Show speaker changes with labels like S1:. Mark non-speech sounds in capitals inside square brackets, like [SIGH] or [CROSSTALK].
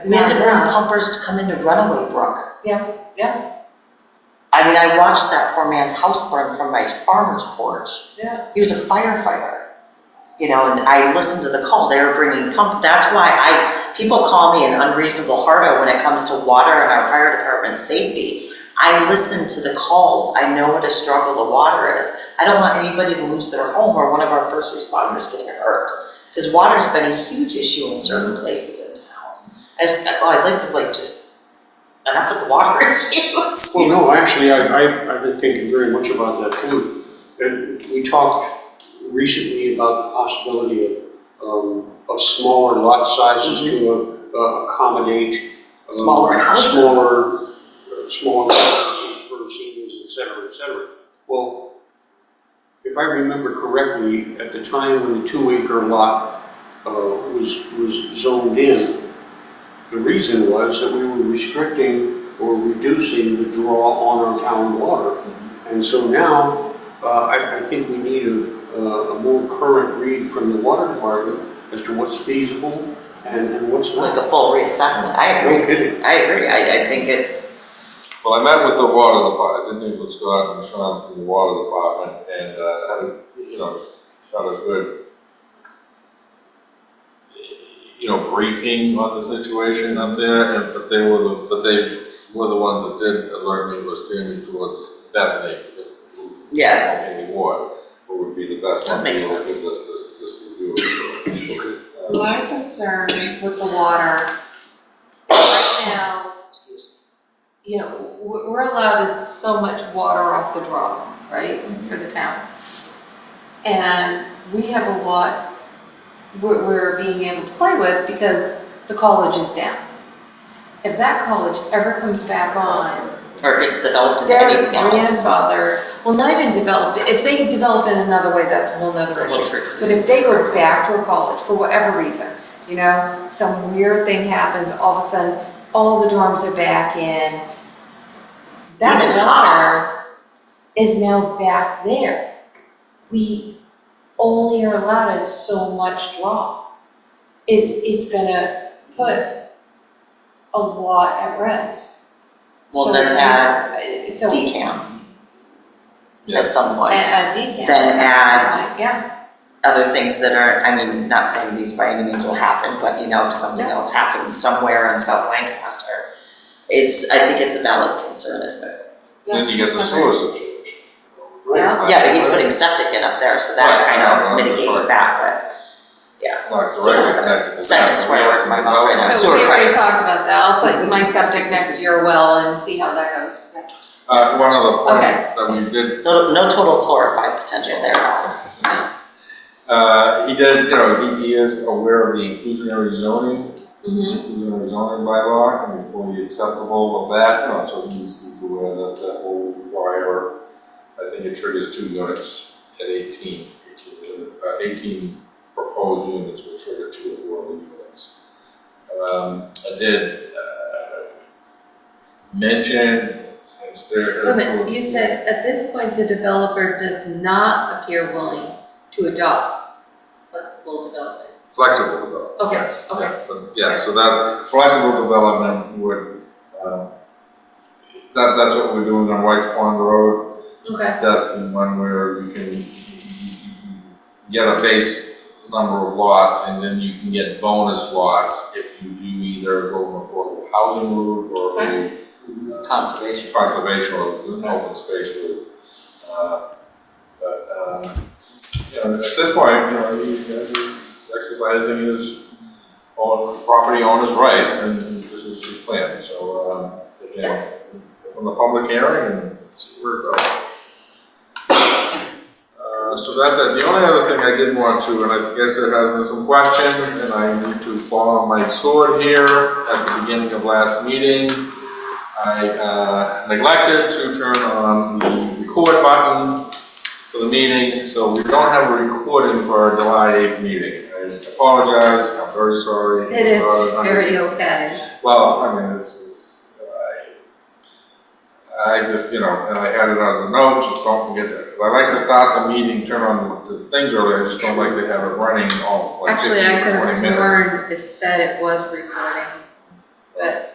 S1: We had to
S2: Not now.
S1: bring pumpers to come into Runaway Brook.
S2: Yeah, yeah,
S1: I mean, I watched that poor man's house burn from my farmer's porch.
S2: yeah.
S1: He was a firefighter. You know, and I listened to the call, they were bringing pump, that's why I, people call me an unreasonable hardo when it comes to water and our fire department safety. I listen to the calls, I know what a struggle the water is. I don't want anybody to lose their home or one of our first responders getting hurt. Cause water's been a huge issue in certain places in town. I just, oh, I'd like to like just, enough with the water [LAUGHS] issues.
S3: Well, no, actually, I, I, I've been thinking very much about that too. And we talked recently about the possibility of, um, of smaller lot sizes to uh, accommodate. um,
S1: Mm-hmm. Smaller houses.
S3: Smaller, uh, smaller houses for seniors, et cetera, et cetera. Well, if I remember correctly, at the time when the two acre lot, uh, was, was zoned in, the reason was that we were restricting or reducing the draw on our town water. And so now, uh, I, I think we need a, a a more current read from the water department as to what's feasible and, and what's
S1: Like
S3: not.
S1: a full reassessment, I agree.
S3: No kidding.
S1: I agree, I, I think it's,
S4: Well, I met with the water department, didn't even Scott and Sean from the water department, and, uh, had a, you know, had a good, you know, briefing on the situation up there, and, but they were the, but they were the ones that did alert me, was steering me towards Bethany, who
S1: yeah,
S4: Maybe more, what would be the best
S1: That
S4: one to
S1: makes
S4: give us
S1: sense.
S4: this, this review.
S2: [COUGHS]
S4: Uh,
S2: My concern with the water, right now,
S1: excuse
S2: you know, we're, we're allowed so much water off the draw, right, for the town. And we have a lot we're, we're being able to play with because the college is down. If that college ever comes back on,
S1: me, or it gets developed into
S2: their
S1: anything else.
S2: grandfather, well, not even developed, if they develop in another way, that's a whole nother
S1: That will
S2: issue.
S1: trigger
S2: But if they go back to a college for whatever reason, you know, some weird thing happens, all of a sudden, all the dorms are back in.
S1: Even
S2: That
S1: half.
S2: water is now back there. We only are allowed so much draw. It, it's gonna put a lot at risk.
S1: Well,
S2: So
S1: then
S2: we-
S1: add
S2: So uh,
S1: Decamp at
S4: Yes,
S1: some point.
S2: a decant.
S1: Then add-
S2: Yeah,
S1: Other things that are, I mean, not saying these by any means will happen, but you know, if something
S2: No.
S1: else happens somewhere in South Lancaster, it's, I think it's a valid concern, isn't it?
S4: then you get the sewer situation.
S2: Yeah.
S1: Yeah, but he's putting septic in up there, so that
S4: Right,
S1: kind
S4: I know,
S1: of
S4: that's
S1: mitigates
S4: right.
S1: that,
S4: Not
S1: Sewer.
S4: directly connected to that.
S1: Second swear word in my mouth right now.
S2: so
S1: sewer
S2: we already
S1: credits.
S2: talked about that, I'll put my septic next to your well and see how that goes.
S4: Uh, one other point
S2: Okay.
S4: that we did
S1: but no, no total chlorified potential there at all.
S4: Uh, he did, you know, he, he is aware of the inclusionary zoning,
S2: Mm-hmm.
S4: inclusionary zoning bylaw, and he's fully acceptable of that, you know, so he's he's aware that that will require, I think it triggers two units at 18, 18 units, uh, eighteen proposed units will trigger two affordable units. Um, I did, uh, mention, since there.
S2: Wait a minute, you said, at this point, the developer does not appear willing to adopt flexible development.
S4: Flexible development.
S2: Okay,
S4: yes,
S2: okay.
S4: yeah, but- Yeah, so that's, flexible development would, um, that, that's what we're doing on White's Pond Road.
S2: Okay.
S4: That's the one where you can get a base number of lots and then you can get bonus lots if you do either go an affordable housing route or uh, a
S1: Conservation.
S4: conservation or open space route. Uh, But, um, you know, at this point, you know, he has his exercising his own property owner's rights and this is his plan, so, um, again, on the public hearing and see where it goes. Uh, so that's it. The only other thing I did want to, and I guess there has been some questions, and I need to follow my sword here at the beginning of last meeting. I uh, neglected to turn on the record button for the meeting, so we don't have a recording for our July eighth meeting. I apologize, I'm very sorry.
S2: It is
S4: It's not under-
S2: very okay.
S4: Well, I mean, it's, it's, I, I just, you know, and I had it as a note, just don't forget that, because I like to start the meeting, turn on the the things early, I just don't like to have it running all like
S2: Actually,
S4: fifteen
S2: I could
S4: or
S2: have
S4: twenty minutes.
S2: sworn it said it was recording.